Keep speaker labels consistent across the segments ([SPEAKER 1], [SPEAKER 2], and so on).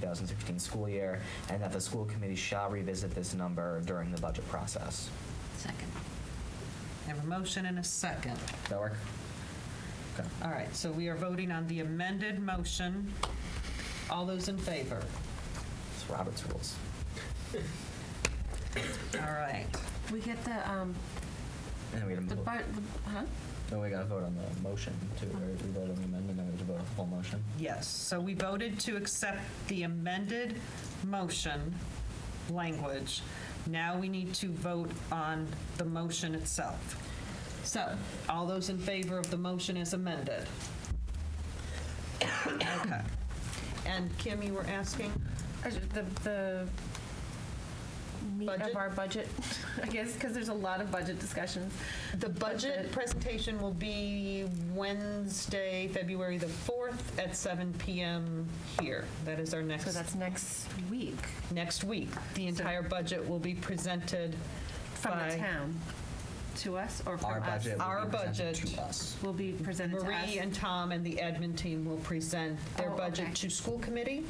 [SPEAKER 1] 2016 school year, and that the school committee shall revisit this number during the budget process.
[SPEAKER 2] Second. Have a motion and a second.
[SPEAKER 1] Does that work? Okay.
[SPEAKER 2] All right, so we are voting on the amended motion. All those in favor?
[SPEAKER 1] It's Robert's rules.
[SPEAKER 2] All right.
[SPEAKER 3] We get the, um,
[SPEAKER 1] And we
[SPEAKER 3] the
[SPEAKER 1] gotta, vote-
[SPEAKER 3] bar, the- huh?
[SPEAKER 1] no, we gotta vote on the motion too, right? We vote on the amendment, then we have to vote on the whole motion.
[SPEAKER 2] Yes, so we voted to accept the amended motion language. Now we need to vote on the motion itself. So, all those in favor of the motion as amended? Okay. And Kim, you were asking?
[SPEAKER 3] Uh, The, the meat
[SPEAKER 2] Budget?
[SPEAKER 3] of our budget, I guess, because there's a lot of budget discussions.
[SPEAKER 2] The budget
[SPEAKER 3] Budget.
[SPEAKER 2] presentation will be Wednesday, February the 4th at 7 PM here. That is our
[SPEAKER 3] So
[SPEAKER 2] next,
[SPEAKER 3] that's next week
[SPEAKER 2] next week. The
[SPEAKER 3] So-
[SPEAKER 2] entire budget will be presented
[SPEAKER 3] from the
[SPEAKER 2] By-
[SPEAKER 3] town to us or
[SPEAKER 1] Our
[SPEAKER 3] from us.
[SPEAKER 1] budget will
[SPEAKER 2] Our
[SPEAKER 1] be presented
[SPEAKER 2] budget.
[SPEAKER 1] to us.
[SPEAKER 3] Will be presented to us.
[SPEAKER 2] Marie and Tom and the admin team will present their
[SPEAKER 3] Oh, okay.
[SPEAKER 2] budget to school committee.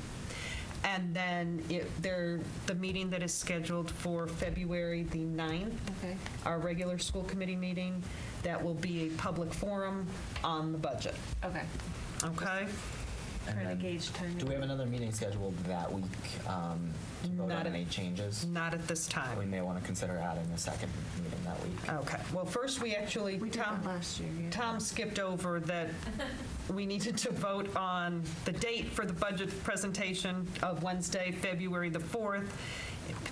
[SPEAKER 2] And then it, their, the meeting that is scheduled for February the 9th,
[SPEAKER 3] Okay,
[SPEAKER 2] our regular school committee meeting, that will be a public forum on the budget.
[SPEAKER 3] okay.
[SPEAKER 2] Okay?
[SPEAKER 1] And
[SPEAKER 3] Trying to
[SPEAKER 1] then-
[SPEAKER 3] gauge timing.
[SPEAKER 1] Do we have another meeting scheduled that week um, to vote
[SPEAKER 2] Not
[SPEAKER 1] on
[SPEAKER 2] at-
[SPEAKER 1] any changes?
[SPEAKER 2] Not at this
[SPEAKER 1] We
[SPEAKER 2] time.
[SPEAKER 1] may want to consider adding a second meeting that week.
[SPEAKER 2] Okay. Well, first, we actually,
[SPEAKER 3] We did that
[SPEAKER 2] Tom,
[SPEAKER 3] last year, yeah.
[SPEAKER 2] Tom skipped over that we needed to vote on the date for the budget presentation of Wednesday, February the 4th.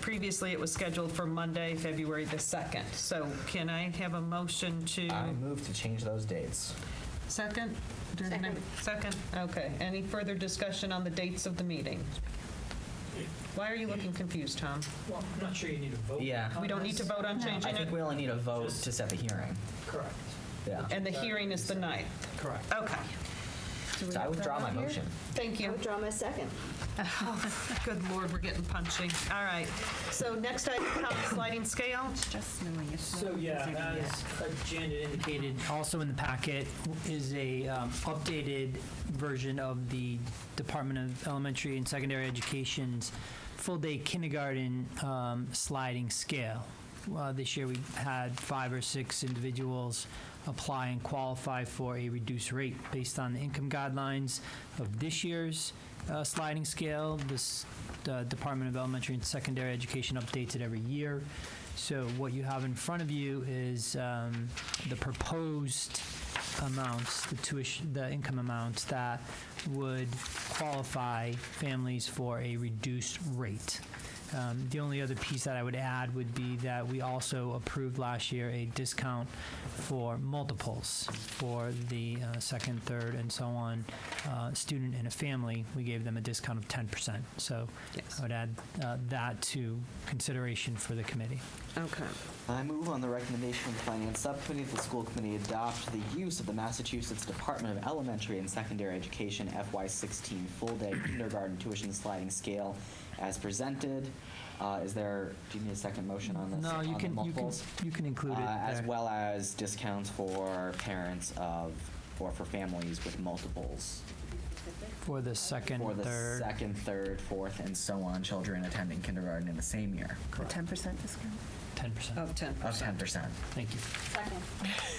[SPEAKER 2] Previously, it was scheduled for Monday, February the 2nd. So can I have a motion to?
[SPEAKER 1] I move to change those dates.
[SPEAKER 2] Second? Does any- Second, okay. Any further discussion on the dates of the meeting? Why are you looking confused, Tom?
[SPEAKER 4] Well, I'm not sure you need a vote.
[SPEAKER 1] Yeah.
[SPEAKER 2] Oh, We don't need to vote on
[SPEAKER 3] No.
[SPEAKER 2] changing
[SPEAKER 1] I
[SPEAKER 2] it?
[SPEAKER 1] think we only need a vote
[SPEAKER 4] Just-
[SPEAKER 1] to set the hearing.
[SPEAKER 4] Correct.
[SPEAKER 1] Yeah.
[SPEAKER 2] And the hearing is the 9th?
[SPEAKER 4] Correct.
[SPEAKER 2] Okay,
[SPEAKER 3] Do we
[SPEAKER 1] So I
[SPEAKER 3] have that
[SPEAKER 1] withdraw my
[SPEAKER 3] on here?
[SPEAKER 1] motion.
[SPEAKER 2] thank
[SPEAKER 5] I
[SPEAKER 2] you.
[SPEAKER 5] withdraw my second.
[SPEAKER 2] Good lord, we're getting punchy. All right, so next item, Tom, sliding scale.
[SPEAKER 3] It's Just knowing it's not
[SPEAKER 4] So, yeah, uh,
[SPEAKER 3] easier to
[SPEAKER 4] as Jan had indicated, also in the packet is a um, updated version of the Department of Elementary and Secondary Education's full-day kindergarten um, sliding scale. Uh, This year, we had five or six individuals apply and qualify for a reduced rate based on the income guidelines of this year's uh, sliding scale. This uh, Department of Elementary and Secondary Education updates it every year. So what you have in front of you is um, the proposed amounts, the tuition, the income amounts that would qualify families for a reduced rate. Um, The only other piece that I would add would be that we also approved last year a discount for multiples for the uh, second, third, and so on, uh, student and a family. We gave them a discount of 10%. So
[SPEAKER 2] Yes.
[SPEAKER 4] I would add uh, that to consideration for the committee.
[SPEAKER 2] Okay.
[SPEAKER 6] I move on the recommendation of the Finance Subcommittee that the school committee adopt the use of the Massachusetts Department of Elementary and Secondary Education FY16 full-day kindergarten tuition sliding scale as presented. Uh, Is there, do you need a second motion on this?
[SPEAKER 4] No,
[SPEAKER 6] on
[SPEAKER 4] you
[SPEAKER 6] the
[SPEAKER 4] can, you can,
[SPEAKER 6] multiples?
[SPEAKER 4] you can include it
[SPEAKER 6] Uh, As
[SPEAKER 4] there.
[SPEAKER 6] well as discounts for parents of, or for families with multiples.
[SPEAKER 4] For the second,
[SPEAKER 6] For the
[SPEAKER 4] third.
[SPEAKER 6] second, third, fourth, and so on, children attending kindergarten in the same year.
[SPEAKER 3] A 10% discount?
[SPEAKER 4] 10%.
[SPEAKER 2] Of 10.
[SPEAKER 6] Of 10%.
[SPEAKER 4] Thank you.
[SPEAKER 5] Second.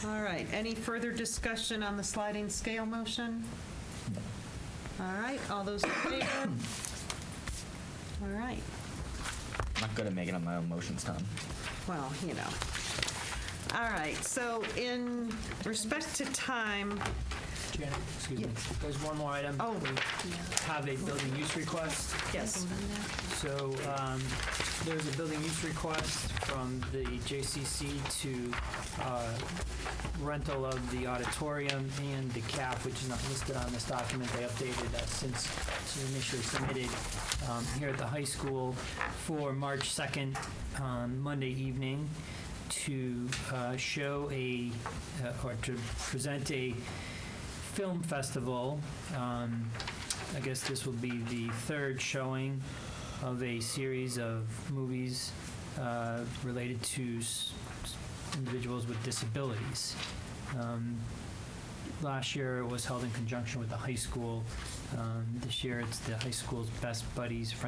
[SPEAKER 2] Oh, All right, any further discussion on the sliding scale motion? All right, all those in favor? All right,
[SPEAKER 1] I'm not good at making up my own motions, Tom.
[SPEAKER 2] well, you know. All right, so in respect to time,
[SPEAKER 4] Janet, excuse me. There's one more item.
[SPEAKER 2] Oh.
[SPEAKER 4] We have a building use request.
[SPEAKER 2] yes,
[SPEAKER 4] So um, there's a building use request from the JCC to uh, rental of the auditorium and the CAF, which is not listed on this document. They updated us since it was initially submitted um, here at the high school for March 2nd, um, Monday evening, to uh, show a, uh, or to present a film festival. Um, I guess this will be the third showing of a series of movies uh, related to s- s- individuals with disabilities. Um, last year, it was held in conjunction with the high school Um, This year, it's the high school's Best Buddies Friendship